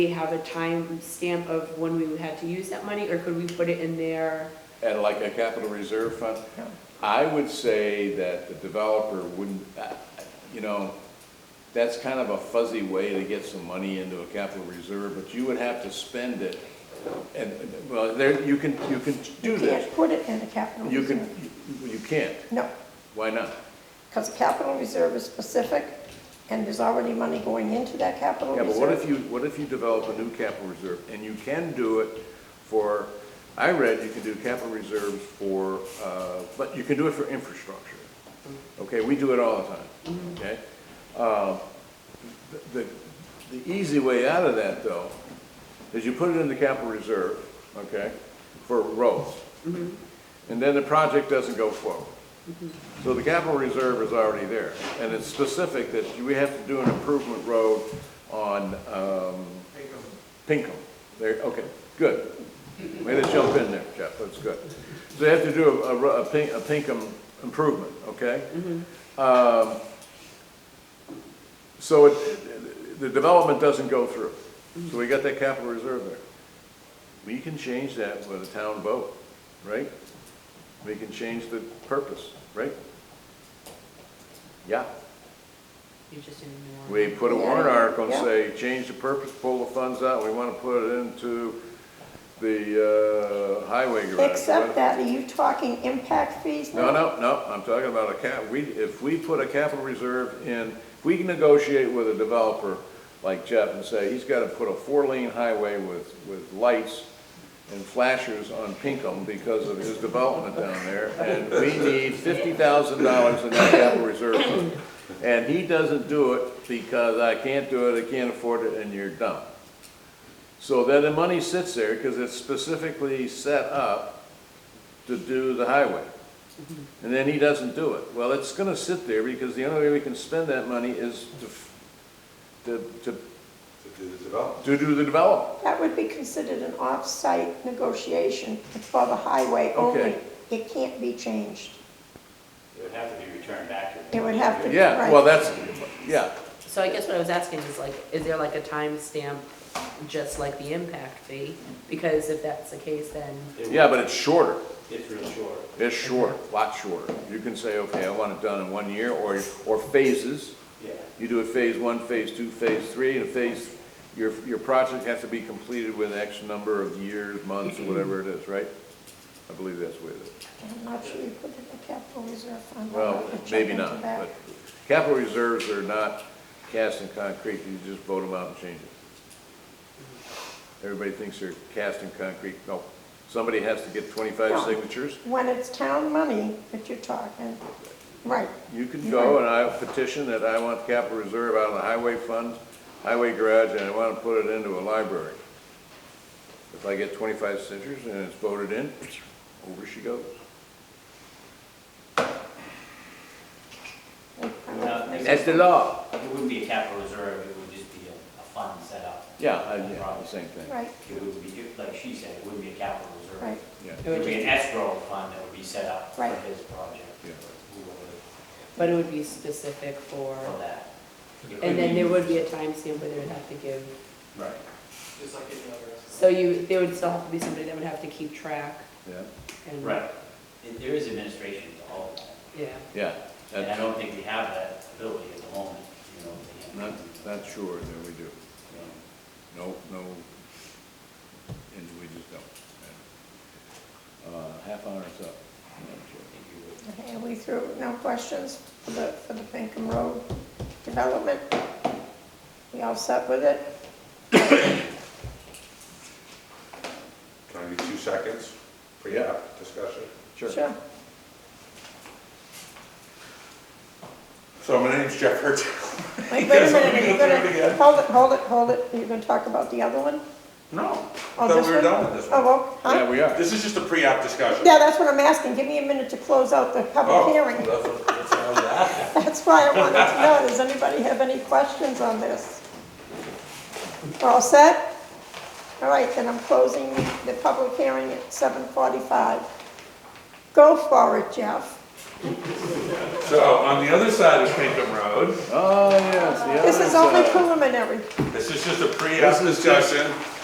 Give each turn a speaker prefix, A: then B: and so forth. A: we have a time stamp of when we had to use that money, or could we put it in there?
B: and like a capital reserve fund, I would say that the developer wouldn't, uh, you know, that's kind of a fuzzy way to get some money into a capital reserve, but you would have to spend it. And, well, there, you can, you can do
C: You
B: this.
C: can't put it in the capital
B: You can,
C: reserve.
B: you can't.
C: No,
B: Why not?
C: because the capital reserve is specific, and there's already money going into that capital
B: Yeah,
C: reserve.
B: but what if you, what if you develop a new capital reserve, and you can do it for, I read you can do capital reserves for, uh, but you can do it for infrastructure.
C: Mm-hmm.
B: Okay, we do it all the time, okay? Uh, The, the the easy way out of that, though, is you put it in the capital reserve, okay, for roads.
C: Mm-hmm.
B: And then the project doesn't go forward. So the capital reserve is already there, and it's specific that we have to do an improvement road on, um. Pinkham. There, okay, good. Way to jump in there, Jeff, that's good. So they have to do a, a, ro- a Pin- a Pinkham improvement, okay? Um, so it, the development doesn't go through, so we got that capital reserve there. We can change that with a town vote, right? We can change the purpose, right? Yeah,
A: You just didn't know.
B: we put a warrant
C: Yeah,
B: article and
C: yeah.
B: say, change the purpose, pull the funds out, we wanna put it into the, uh, highway garage.
C: Except that, are you talking impact fees?
B: No, no, no, I'm talking about a cap, we, if we put a capital reserve in, if we can negotiate with a developer like Jeff and say, he's gotta put a four-lane highway with, with lights and flashers on Pinkham because of his development down there, and we need fifty thousand dollars in that capital reserve fund. And he doesn't do it because I can't do it, I can't afford it, and you're dumb. So then the money sits there, because it's specifically set up to do the highway and then he doesn't do it. Well, it's gonna sit there because the only way we can spend that money is to, f- to, to,
D: to do the development.
B: to do the development.
C: That would be considered an off-site negotiation for the highway only.
B: Okay.
C: It can't be changed.
E: It would have to be returned back to.
C: It would have to be.
B: Yeah, well, that's, yeah,
A: So I guess what I was asking is like, is there like a time stamp, just like the impact fee? Because if that's the case, then,
E: It would-
B: yeah, but it's shorter.
E: It's real short.
B: It's short, a lot shorter. You can say, okay, I want it done in one year, or, or phases.
E: Yeah.
B: You do it phase one, phase two, phase three, and phase, your, your project has to be completed with X number of years, months, or whatever it is, right? I believe that's the way it is.
C: I'm not sure you put it in the capital reserve fund. I'll
B: Well,
C: have to check
B: maybe
C: into
B: not,
C: that.
B: but capital reserves are not cast in concrete, you just vote them out and change it. Everybody thinks they're cast in concrete, no, somebody has to get twenty-five
C: No.
B: signatures.
C: When it's town money that you're talking, right.
B: You can go and I petition that I want capital reserve out of the highway fund, highway garage, and I want to put it into a library. If I get twenty-five signatures and it's voted in, over she goes.
E: No, it-
B: That's the law.
E: It wouldn't be a capital reserve, it would just be a, a fund set up.
B: Yeah, I- yeah, the same thing,
C: Right,
E: It would be, like she said, it wouldn't be a capital reserve.
C: right.
B: yeah.
E: It would be an escrow fund that would be set up for
C: Right.
E: his project.
B: Yeah.
E: whoever-
A: but it would be specific for,
E: For that. It
A: and
E: could
A: then
E: be-
A: there would be a time stamp where they would have to give.
E: Right.
F: Just like any other restaurant.
A: So you, there would still have to be somebody that would have to keep track
B: Yeah,
A: and.
E: Right. It- There is administration to all of that.
A: Yeah,
B: yeah.
E: And
B: that's-
E: I don't think we have that ability at the moment, you know. to
B: Not,
E: handle,
B: not sure that we do.
E: you know.
B: No, no, and we just don't. Uh, half hour's up.
C: Okay, Are we through? No questions for the, for the Pinkham Road development? We all set with it?
D: Can I need two seconds for your
B: Yeah.
D: discussion?
C: Sure.
D: So my name's Jeff Hertel.
C: Wait, wait a
D: Yes, I'm
C: minute, you're
D: gonna do it
C: gonna,
D: again.
C: hold it, hold it, hold it, you're gonna talk about the other one?
D: No,
C: Oh,
D: I thought
C: this
D: we were
C: one?
D: done with this
C: Oh,
D: one.
C: well,
B: Yeah,
C: huh?
B: we are.
D: This is just a pre-op discussion.
C: Yeah, that's what I'm asking, give me a minute to close out the
D: Oh,
C: public hearing.
D: that's what- that's what I was asking.
C: That's why I wanted to know, does anybody have any questions on this? We're all set? All right, then I'm closing the public hearing at seven forty-five. Go for it, Jeff.
D: So on the other side of Pinkham Road,
B: Oh, yes, the uh,
C: This
B: other
C: is only
B: side.
C: preliminary.
D: this is just a pre-app discussion.